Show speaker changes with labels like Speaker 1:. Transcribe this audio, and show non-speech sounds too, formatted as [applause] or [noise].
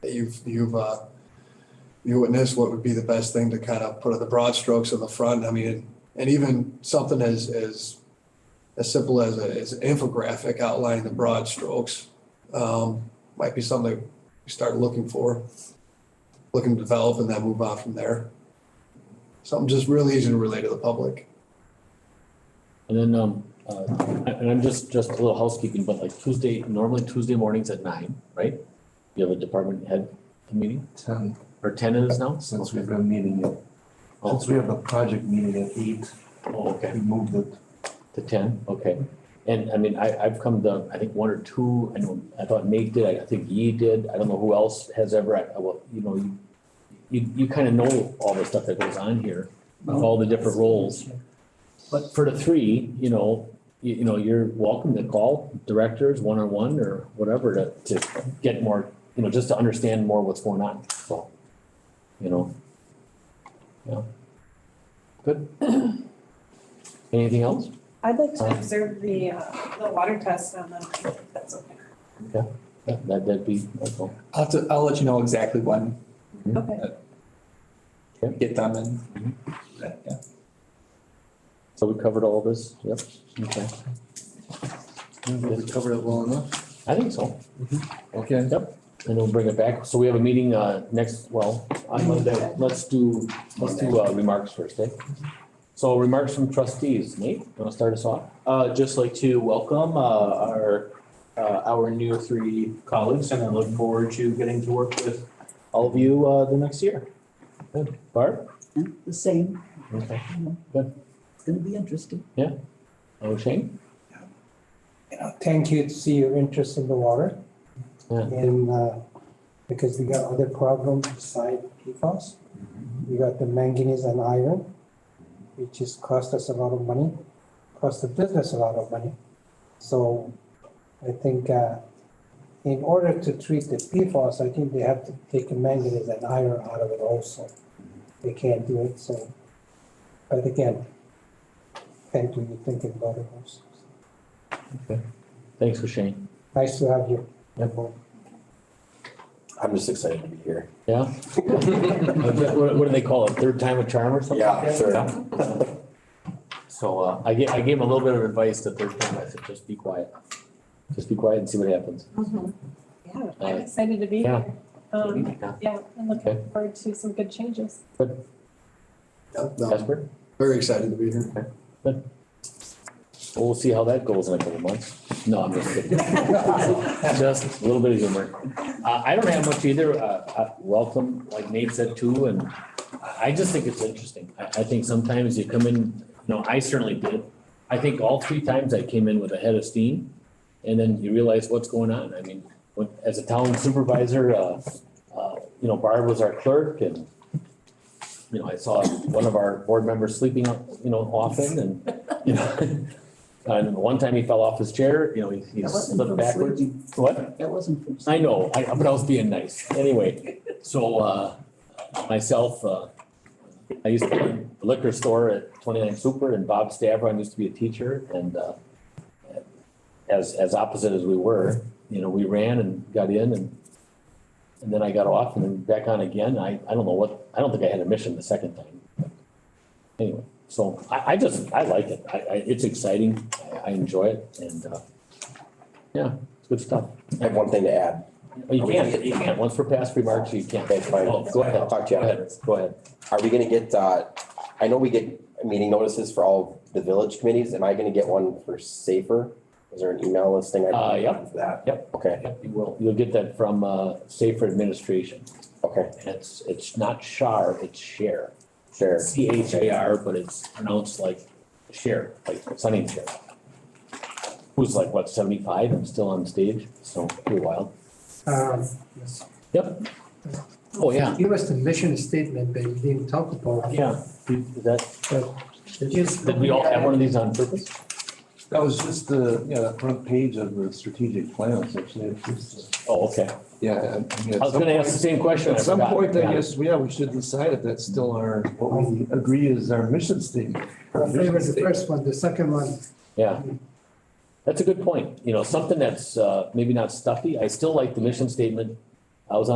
Speaker 1: that you've, you've, uh, you witnessed, what would be the best thing to kind of put in the broad strokes on the front? I mean, and even something as, as, as simple as, a- as an infographic outlining the broad strokes, um, might be something that we start looking for, looking to develop and then move on from there. Something just really easy to relate to the public.
Speaker 2: And then, um, uh, and I'm just, just a little housekeeping, but like Tuesday, normally Tuesday mornings at nine, right? You have a department head meeting,
Speaker 3: ten,
Speaker 2: or ten it is now?
Speaker 3: since we've been meeting it,
Speaker 2: Oh,
Speaker 3: since we have a project meeting at eight,
Speaker 2: oh, okay,
Speaker 3: we moved it.
Speaker 2: to ten, okay. And I mean, I, I've come to, I think, one or two, I know, I thought Nate did, I think Yi did, I don't know who else has ever, I, well, you know, you, you, you kind of know all the stuff that goes on here, of all the different roles. But for the three, you know, you, you know, you're welcome to call directors one-on-one or whatever to, to get more, you know, just to understand more what's going on, so, you know. Yeah. Good. [clears throat] Anything else?
Speaker 4: I'd like to observe the, uh, the water test on the, ninth, if that's okay.
Speaker 2: Yeah, That, that'd be, that's all.
Speaker 5: I'll have to, I'll let you know exactly when
Speaker 4: Okay.
Speaker 5: we get them and. Yeah.
Speaker 2: So we covered all this, yep, okay,
Speaker 1: We covered it well enough. Mm-hmm.
Speaker 2: I think so,
Speaker 3: Okay.
Speaker 2: and we'll bring it back, so we have a meeting, uh, next, well, on Monday, let's do, let's do, uh, remarks first, eh? So remarks from trustees, Nate, you wanna start us off?
Speaker 6: Uh, just like to welcome, uh, our, uh, our new three colleagues and I look forward to getting to work with all of you, uh, the next year.
Speaker 2: Good, Barb?
Speaker 7: The same,
Speaker 2: Okay.
Speaker 7: it's gonna be interesting.
Speaker 2: Oh, Shane?
Speaker 8: Uh, Thank you to see your interest in the water.
Speaker 2: Yeah.
Speaker 8: And uh, because we got other problems beside PFAS. We got the manganese and iron, which has cost us a lot of money, cost the business a lot of money. So I think uh, in order to treat the PFAS, I think they have to take the manganese and iron out of it also. They can't do it, so. But again, thank you, you're thinking about it also.
Speaker 2: Thanks for Shane,
Speaker 8: Nice to have you.
Speaker 6: I'm just excited to be here. [laughs]
Speaker 2: yeah? What, what do they call it, third time a charm or something?
Speaker 6: Yeah, sure.
Speaker 2: So, uh, I gave, I gave him a little bit of advice the third time, I said, just be quiet, just be quiet and see what happens.
Speaker 4: Mm-hmm. Yeah, I'm excited to be
Speaker 2: Yeah.
Speaker 4: here. Um,
Speaker 2: Yeah.
Speaker 4: yeah, I'm
Speaker 2: Okay.
Speaker 4: looking forward to some good changes.
Speaker 1: Yep, no,
Speaker 2: Casper?
Speaker 1: Very excited to be here.
Speaker 2: Well, We'll see how that goes in a couple months. No, I'm just kidding. Just a little bit of humor. Uh, I don't have much either. Uh, uh, welcome, like Nate said too, and I- I just think it's interesting. I, I think sometimes you come in, you know, I certainly did. I think all three times I came in with a head of steam and then you realize what's going on. I mean, when, as a town supervisor, uh, uh, you know, Barb was our clerk and you know, I saw one of our board members sleeping, you know, often and, you know, [laughs] And one time he fell off his chair, you know, he he
Speaker 7: That wasn't
Speaker 2: slipped
Speaker 7: from
Speaker 2: backwards.
Speaker 7: sleeping.
Speaker 2: What?
Speaker 7: That wasn't from.
Speaker 2: I know, I, but I was being nice. Anyway, so, uh, myself, uh, I used to run the liquor store at twenty-nine Super and Bob Stavron used to be a teacher and, uh, as, as opposite as we were, you know, we ran and got in and, and then I got off and then back on again. I, I don't know what, I don't think I had a mission the second time. Anyway, so I, I just, I like it. I, I, it's exciting. I, I enjoy it and, uh, yeah, it's good stuff.
Speaker 6: I have one thing to add.
Speaker 2: Oh, You can't, you can't, once for past remarks, you can't.
Speaker 6: That's fine.
Speaker 2: Oh, Go ahead,
Speaker 6: I'll talk to
Speaker 2: go
Speaker 6: you
Speaker 2: ahead, go ahead.
Speaker 6: Are we gonna get, uh, I know we get meeting notices for all the village committees. Am I gonna get one for Safer? Is there an email listing? I can
Speaker 2: Uh, yep.
Speaker 6: For that?
Speaker 2: Yep.
Speaker 6: Okay,
Speaker 2: You will, you'll get that from uh, Safer Administration.
Speaker 6: okay,
Speaker 2: And it's, it's not SHAR, it's SHARE.
Speaker 6: sure.
Speaker 2: C H A R, but it's pronounced like SHARE, like Sunny and Cher. Who's like, what, seventy-five and still on stage, so pretty wild.
Speaker 9: Um,
Speaker 2: Yep. Oh, yeah,
Speaker 9: Give us the mission statement that you didn't talk about.
Speaker 2: yeah. Did that,
Speaker 9: Just-
Speaker 2: did we all have one of these on purpose?
Speaker 3: That was just the, yeah, the front page of the strategic plans, actually. It's just, uh,
Speaker 2: Oh, okay.
Speaker 3: Yeah. I
Speaker 2: I
Speaker 3: mean, at
Speaker 2: was
Speaker 3: some
Speaker 2: gonna ask the
Speaker 3: point-
Speaker 2: same question. I
Speaker 3: At some
Speaker 2: forgot.
Speaker 3: point,
Speaker 2: Yeah.
Speaker 3: I guess, yeah, we should decide if that's still our, what we agree is our mission statement.
Speaker 9: I favor the first one, the second one,
Speaker 2: Yeah. That's a good point. You know, something that's uh, maybe not stuffy. I still like the mission statement